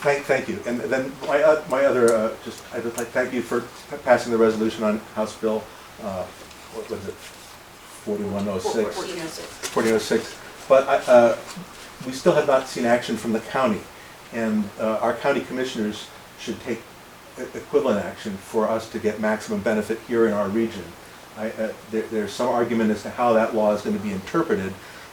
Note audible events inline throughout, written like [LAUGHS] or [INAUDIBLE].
Thank, thank you. And then my, uh, my other, uh, just, I'd just like, thank you for p- passing the resolution on House Bill, uh, what was it? Forty-one oh Four- six. Fourteen oh six. Forty oh six. But I, uh, we still have not seen action from the county. And, uh, our county commissioners should take e- equivalent action for us to get maximum benefit here in our region. I, uh, there, there's some argument as to how that law is gonna be interpreted,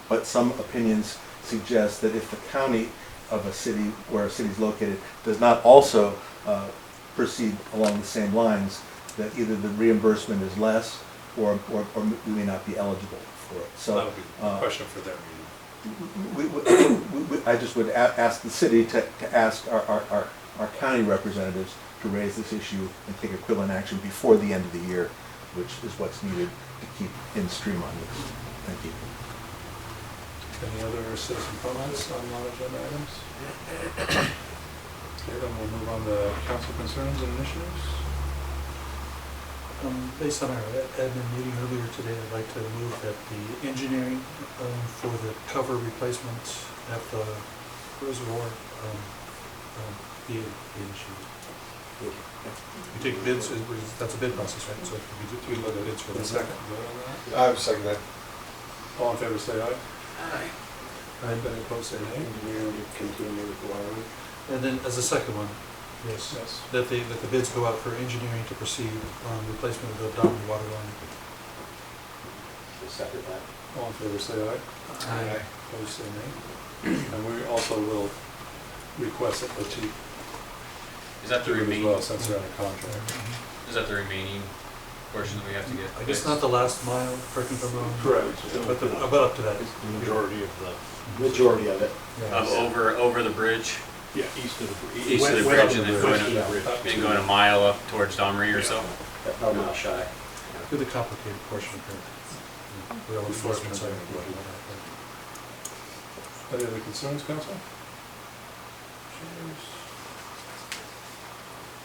but some opinions suggest that if the county of a city where a city is located does not also uh, proceed along the same lines, that either the reimbursement is less or, or, or we may not be eligible for it. That So, would be a uh, question for them. we, [COUGHS] we- we- we- I just would a- ask the city to, to ask our, our, our- our county representatives to raise this issue and take equivalent action before the end of the year, which is what's needed to keep in stream on this. Thank you. Any other citizen comments on non-agenda items? Okay, then we'll move on to council concerns and initiatives. Um, Based on our admin meeting earlier today, I'd like to move that the engineering um, for the cover replacement at the reservoir um, um, be be issued. You take bids, it was- that's a bid process, right? So We did, we looked at it for the second. vote on I would second that. that. All in favor, say aye. Aye. Aye. Any opposed, say nay. continue with wiring. And then as a second one, yes, Yes. that the, that the bids go out for engineering to proceed on replacement of the Downey water line. Second that. All in favor, say aye. Aye. Opposed, say nay. And we also will request that the chief Is that the do it as remaining, well, since they're under contract. is that the remaining portion that we have to get? I guess fixed? not the last mile, correct me if I'm wrong. Correct. But the, but up to that. Majority of the, Majority of it. Of over, over the bridge, yeah, east of the. br- east of the west bridge and then going, East a- of the bridge. and going a mile up towards Domry or so? About a mile shy. Do the complicated portion here. We all enforcement side. Any other concerns, council?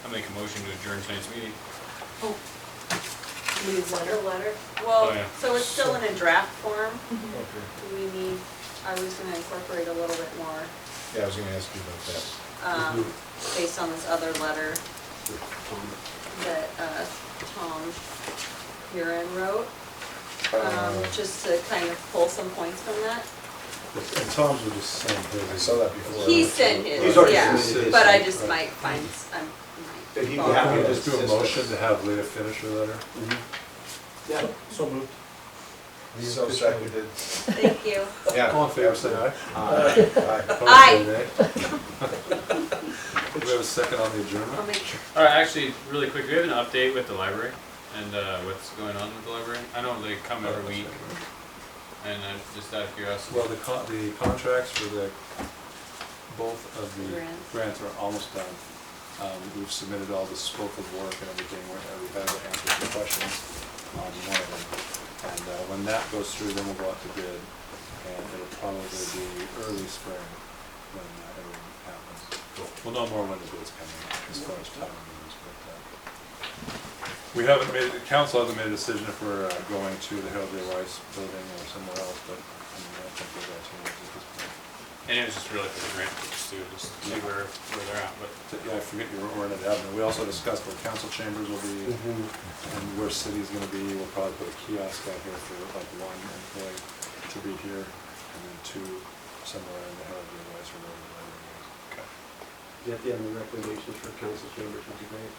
I make a motion to adjourn tonight's meeting. Oh. Lee's The letter. letter, Oh, well, yeah. so it's still in a draft form. Do we need, I was gonna incorporate a little bit more, Yeah, I was gonna ask you about that. um, based on this other letter Um, that, uh, Tom Huron wrote, um, Uh, just to kind of pull some points from that. And Tom's were just saying. I saw that before. He sent his, He's already submitted yeah, his. but I just might find, s- I might. Did he follow have- up. Can we just do a motion to have Leah finish her letter? Yeah. So moved. So seconded. Thank you. Yeah. All in favor, [LAUGHS] say aye. [LAUGHS] Aye. Aye. Opposed, say nay. Do [LAUGHS] we have a second on the I'll [LAUGHS] adjournment? make sure. All right, actually, really quick, do we have an update with the library and uh, what's going on with the library? I know they come every week and I just out of curiosity. Well, the con, the contracts for the, both of the Grants. grants are almost done. Um, we've submitted all the scope of work and everything, we're- and we've had to answer the questions on one of them. And, uh, when that goes through, then we'll go out to bid, and it'll probably be early spring when that everything happens. We'll know more when the bid's coming, as far as timing goes, but, uh, we haven't made, the council hasn't made a decision if we're uh, going to the Harold J. Rice building or somewhere else, but I mean, I don't think we're going to at this point. And it was just really for the grant, just to, just to see where, where they're at, but But, Yeah, I forget you were in the avenue. We also discussed where council chambers will be and where city's gonna be. We'll probably put a kiosk out here for like one employee to be here and then two somewhere in the Harold J. Rice or wherever the library is. Get the other recommendations for council chambers would be great.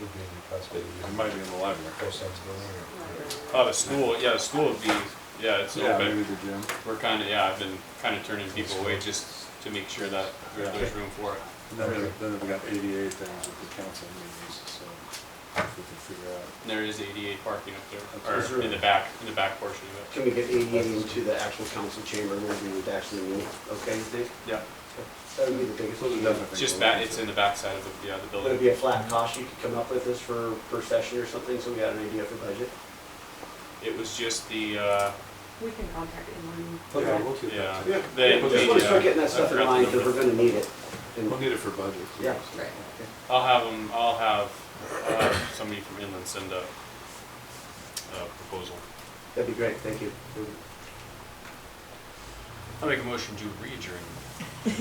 Would be possibly, It might be in the library. Both sides of the line. Oh, the school, yeah, the school would be, yeah, it's Yeah, open. maybe the gym. We're kind of, yeah, I've been kind of turning people away just to make sure that there- there's room for it. And then we- then we got eighty-eight things with the council meetings, so if we can figure out And There is ADA parking up there, Is or there- in the back, in the back portion of it. Can we get ADA into the actual council chamber where we would actually meet? Okay, Dave? Yeah. That would be the biggest. Those are definitely It's just that, it's in the back side of the, yeah, the Would it building. be a flat cost you could come up with this for, per session or something, so we got an idea for budget? It was just the, uh, We can contact him Yeah, we'll do yeah. that. Yeah. the- We just the, wanna start uh, getting I that stuff in forgot the mind, because number. we're gonna need it. And- We'll need it for budget. Yeah. Right. I'll have them, I'll have, uh, somebody from Inland send a, a proposal. That'd be great, thank you. I'll make a motion to re-adjourn.